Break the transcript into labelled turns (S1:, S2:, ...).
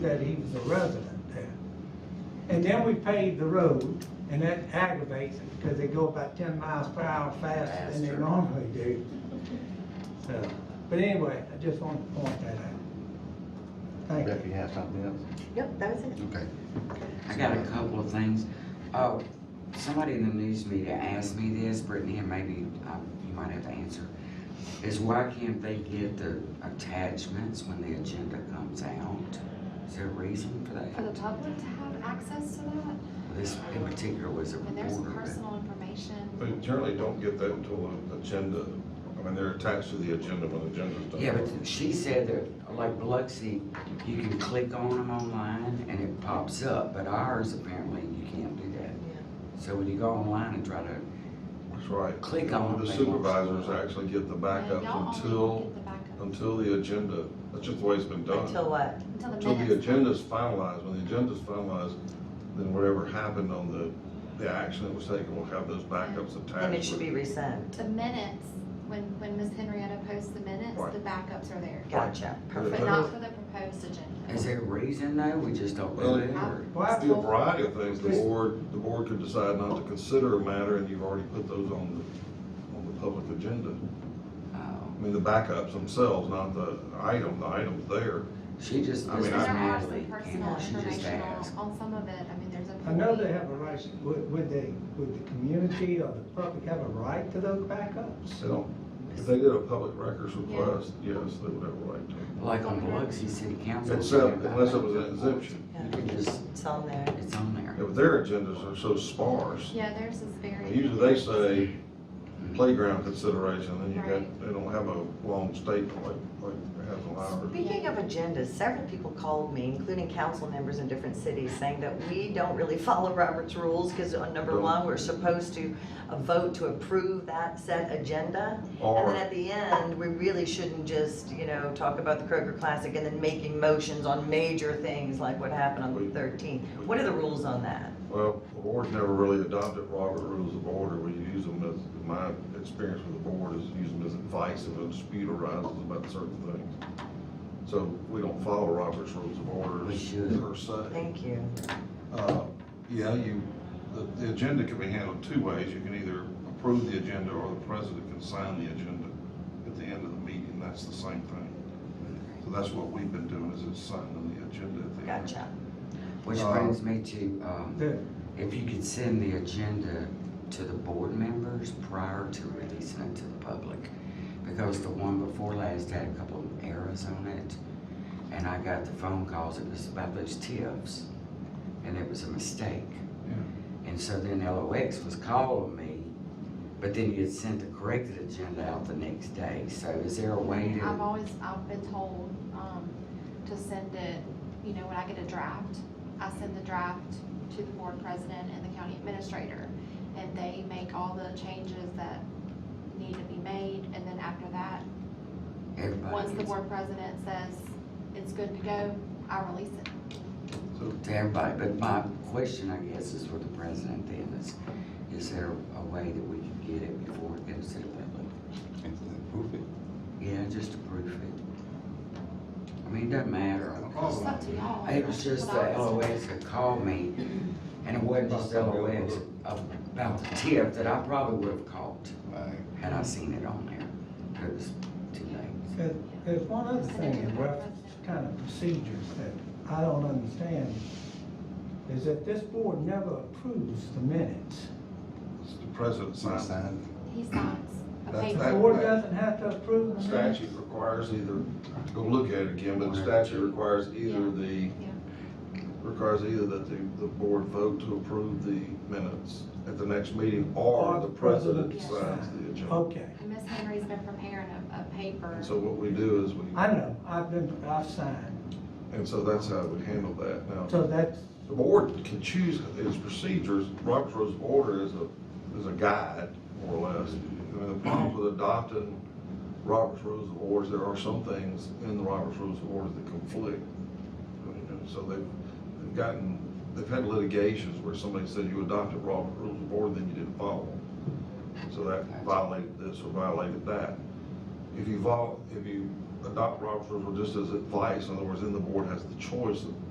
S1: that he was a resident there. And then we paved the road, and that aggravates it, because they go about ten miles per hour faster than they
S2: Faster.
S1: normally do. So, but anyway, I just wanted to point that out. Thank you.
S3: Becky has something else?
S2: Yep, that was it.
S3: Okay.
S4: I got a couple of things. Oh, somebody in the news media asked me this, Brittany, and maybe um, you might have to answer, is why can't they get the attachments when the agenda comes out? Is there a reason for
S5: For
S4: that?
S5: the public to have access to that,
S4: This in particular was a
S5: I mean, there's
S4: reporter,
S5: personal information.
S6: They generally don't get that until the agenda, I mean, they're attached to the agenda when the agenda's
S4: but,
S6: done.
S4: yeah, but she said that, like Biloxi, you can click on them online and it pops up, but ours apparently you can't do that. So when you go online and try to,
S6: That's right.
S4: Click on it,
S6: The
S4: they
S6: supervisors
S4: won't.
S6: actually get the
S5: And y'all
S6: backups
S5: only
S6: until,
S5: get the backup
S6: until the agenda, that's just the way it's been done.
S2: Until what?
S5: Until
S6: Until
S5: the
S6: the
S5: minutes.
S6: agenda's finalized, when the agenda's finalized, then whatever happened on the, the action that was taken, we'll have those backups attached.
S2: Then it should be
S6: with-
S2: resent.
S5: The minutes, when, when Ms. Henrietta posts the minutes,
S6: Right.
S5: the backups are there,
S2: Gotcha,
S5: but
S2: perfect.
S5: not for the proposed agenda.
S4: is there a reason though? We just don't do it or?
S1: Well, I
S6: Be a
S1: told-
S6: variety of things, the board, the board could decide not to consider a matter, and you've already put those on the, on the public agenda.
S4: Oh.
S6: I mean, the backups themselves, not the item, the item's there.
S4: She just,
S6: I
S4: this is
S6: mean,
S5: There are
S4: Natalie,
S5: some
S4: you know,
S5: personal
S4: she just
S5: information
S4: asked.
S5: on, on some of it, I mean, there's a.
S1: I know they have a right, would, would they, would the community or the public have a right to those backups?
S6: They don't, if they did a public records request, yes, they would have a right to.
S4: Like on Biloxi City Council.
S6: Except, unless it was an exemption.
S4: You could just,
S2: It's on there.
S4: it's on there.
S6: Yeah, but their agendas are so sparse.
S5: Yeah, theirs is very.
S6: Usually they say playground consideration, then you got,
S5: Right.
S6: they don't have a long statement like, like half an hour.
S2: Speaking of agendas, several people called me, including council members in different cities, saying that we don't really follow Robert's rules because on number
S6: Don't.
S2: one, we're supposed to uh, vote to approve that set agenda. And
S6: Or-
S2: then at the end, we really shouldn't just, you know, talk about the Kroger Classic and then making motions on major things like what happened on
S6: We-
S2: the 13th. What are the rules on that?
S6: Well, the board's never really adopted Robert Rules of Order. We use them as, my experience with the board is use them as advice if a dispute arises about certain things. So we don't follow Robert's Rules of Order
S4: We should.
S6: per se.
S2: Thank you.
S6: Uh, Yeah, you, the, the agenda can be handled two ways. You can either approve the agenda or the president can sign the agenda at the end of the meeting. That's the same thing. So that's what we've been doing is it's signing the agenda at the end.
S2: Gotcha.
S4: Which
S6: Uh,
S4: brings me to, um,
S1: The-
S4: if you could send the agenda to the board members prior to releasing it to the public. Because the one before last had a couple of errors on it. And I got the phone calls, it was about those tips. And it was a mistake. And so then LOX was calling me, but then you had sent the corrected agenda out the next day. So is there a way
S5: I've
S4: to?
S5: always, I've been told, um, to send it, you know, when I get a draft, I send the draft to the board president and the county administrator. And they make all the changes that need to be made, and then after that,
S4: everybody
S5: once the
S4: gets-
S5: board president says it's good to go, I release it.
S4: To everybody, but my question, I guess, is for the president then, is, is there a way that we can get it before it goes to the public?
S3: Proof it.
S4: Yeah, just to proof it. I mean, it doesn't matter. I don't care.
S5: It's up to y'all.
S4: It was just the LOX that called me, and it wasn't just LOX about the tip that I probably would have caught. had I seen it on there. It was too late.
S1: There- There's one other thing in reference to kind of procedures that I don't understand, is that this board never approves the minutes.
S6: It's The president signs it.
S5: He signs a
S6: That's
S5: paper.
S1: The board doesn't have to approve the minutes.
S6: Statute requires either, I have to go look at it again, but the statute requires either the,
S5: Yeah.
S6: requires either that the, the board vote to approve the minutes at the next meeting, or the president signs the agenda.
S1: Okay,
S5: And Miss Henry's been preparing a, a paper.
S6: And so what we do is we,
S1: I know, I've been, I've signed,
S6: and so that's how we handle that now.
S1: so that's,
S6: The board can choose its procedures, Robert's Rules of Order is a, is a guide, more or less. I mean, the problem with adopting Robert's Rules of Order is there are some things in the Robert's Rules of Order that conflict. I mean, and So they've, they've gotten, they've had litigations where somebody said you adopted Robert's Rules of Order, then you didn't follow them. So that violated this or violated that. If you vol, if you adopt Robert's Rules of Order just as advice, in other words, then the board has the choice of